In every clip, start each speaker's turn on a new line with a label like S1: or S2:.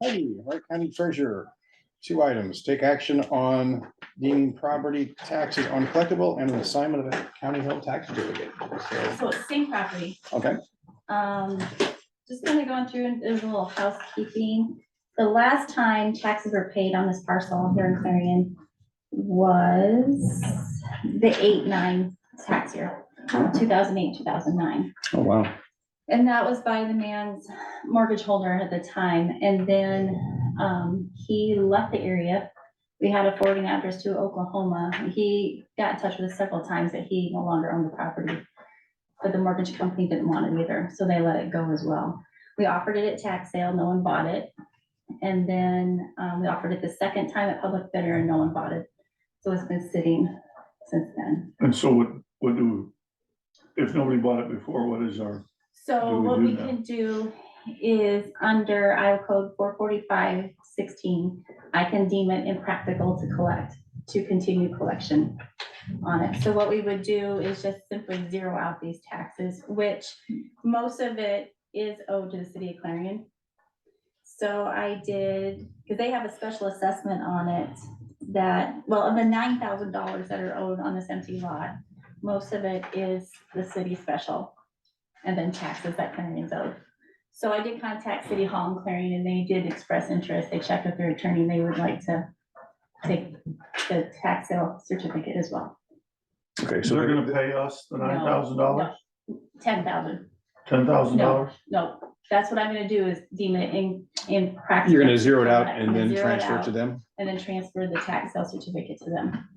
S1: Hey, Wright County Treasurer, two items. Take action on deeming property taxes uncollectible and an assignment of a county held tax certificate. So,
S2: So it's same property.
S1: Okay,
S2: Um, just kind of going through and there's a little housekeeping. The last time taxes were paid on this parcel here in Clarion was the eight, nine tax year, two thousand eight, two thousand nine.
S1: oh, wow.
S2: And that was by the man's mortgage holder at the time, and then, um, he left the area. We had a forwarding address to Oklahoma, he got in touch with us several times that he no longer owned the property. But the mortgage company didn't want it either, so they let it go as well. We offered it at tax sale, no one bought it. And then, um, we offered it the second time at public bidder and no one bought it. So it's been sitting since then.
S3: And so what, what do, if nobody bought it before, what is our,
S2: So
S3: Do we
S2: what
S3: do
S2: we
S3: that?
S2: can do is under Iowa code four forty-five sixteen, I can deem it impractical to collect, to continue collection on it. So what we would do is just simply zero out these taxes, which most of it is owed to the city of Clarion. So I did, because they have a special assessment on it that, well, of the nine thousand dollars that are owed on this empty lot, most of it is the city special and then taxes that Clarion's owed. So I did contact City Hall in Clarion and they did express interest. They checked with their attorney. and They would like to take the tax sale certificate as well.
S1: Okay, so
S3: they're
S1: they're-
S3: gonna pay us the
S2: No,
S3: nine thousand dollars,
S2: Ten thousand.
S3: ten thousand dollars?
S2: No, that's what I'm gonna do is deem it in, in practice.
S1: you're gonna zero it out and
S2: I'm gonna
S1: then
S2: zero it
S1: transfer it to
S2: out
S1: them?
S2: And then transfer the tax sale certificate to them.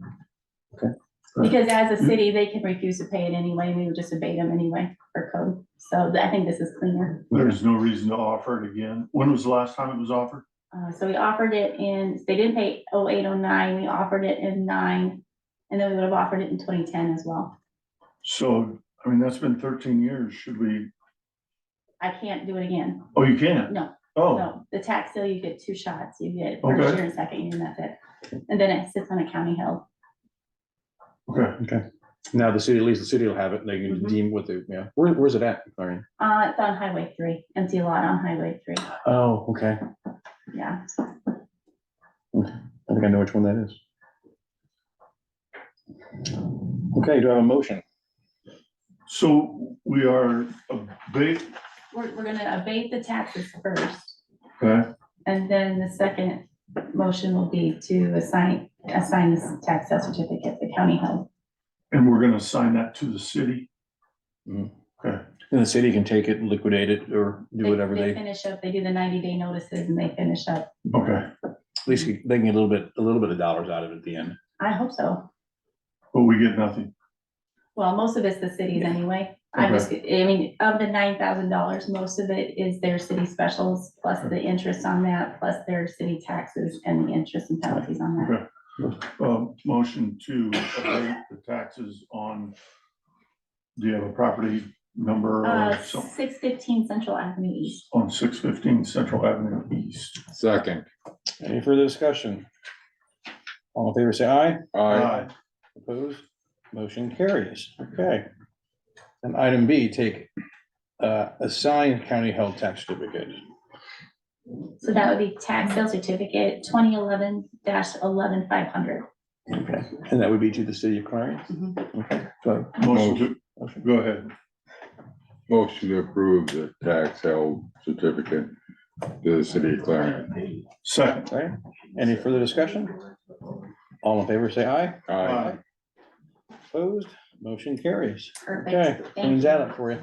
S1: Okay.
S2: Because as a city, they can refuse to pay it anyway. We would just obey them anyway for code. So I think this is cleaner.
S3: There's no reason to offer it again. When was the last time it was offered?
S2: Uh, so we offered it in, they didn't pay oh eight, oh nine, we offered it in nine, and then we would have offered it in twenty ten as well.
S3: So, I mean, that's been thirteen years. Should we,
S2: I can't do it again,
S3: oh, you can't?
S2: No,
S3: Oh,
S2: no, the tax sale, you get two shots, you get first
S3: Okay.
S2: year and second year, and that's it. And then it sits on a county hill,
S3: okay.
S1: Now the city, at least the city will have it, and they can
S2: Mhm.
S1: deem what they, yeah, where, where's it at, Clarion?
S2: uh, it's on highway three, empty lot on highway three,
S1: Oh, okay,
S2: yeah.
S1: I think I know which one that is. Okay, do I have a motion?
S3: So we are a big,
S2: We're, we're gonna abate the taxes first,
S3: okay,
S2: and then the second motion will be to assign, assign this tax sale certificate to county hill.
S3: and we're gonna assign that to the city?
S1: Mm.
S3: Okay,
S1: And the city can take it, liquidate it, or do whatever they, at
S2: Finish up, they do the ninety day notices and they finish up.
S3: okay.
S1: least they can get a little bit, a little bit of dollars out of it at the end.
S2: I hope so.
S3: But we get nothing.
S2: Well, most of it's the cities anyway. I just, I mean, of the nine thousand dollars, most of it is their city specials, plus the interest on that, plus their city taxes and the interest and penalties on that.
S3: Uh, motion to abate the taxes on, do you have a property number
S2: Uh,
S3: or something?
S2: six fifteen Central Avenue East.
S3: On six fifteen Central Avenue East.
S4: Second.
S1: Any further discussion? All in favor, say aye.
S3: Aye.
S1: Opposed? Motion carries. Okay. And item B, take uh, assigned county held tax certificate.
S2: So that would be tax sale certificate twenty eleven dash eleven five hundred.
S1: Okay. And that would be to the city of Clarion? Okay. So,
S3: Motion to,
S1: motion.
S3: go ahead.
S4: Motion to approve the tax held certificate to the city of Clarion.
S3: Second.
S1: okay. Any further discussion? All in favor, say aye.
S4: Aye.
S1: Opposed? Motion carries. Okay,
S2: Perfect. Thank
S1: cleans
S2: you.
S1: that up for you.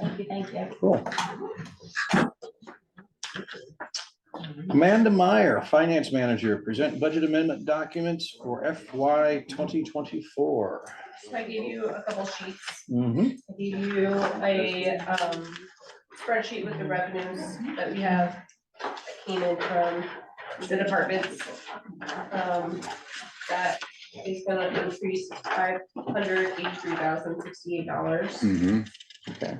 S2: Thank you, thank you.
S1: Cool. Amanda Meyer, Finance Manager, present budget amendment documents for FY 2024.
S5: So I gave you a couple sheets.
S1: Mhm.
S5: I gave you a um spreadsheet with the revenues that we have that came in from the departments. Um, that is gonna increase five hundred eighty-three thousand sixty-eight dollars.
S4: Mhm.
S1: Okay.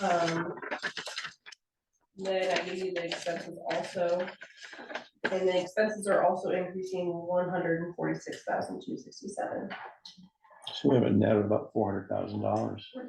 S5: Um. Then I gave you the expenses also. And the expenses are also increasing one hundred and forty-six thousand two sixty-seven.
S1: So we have a net of about $400,000.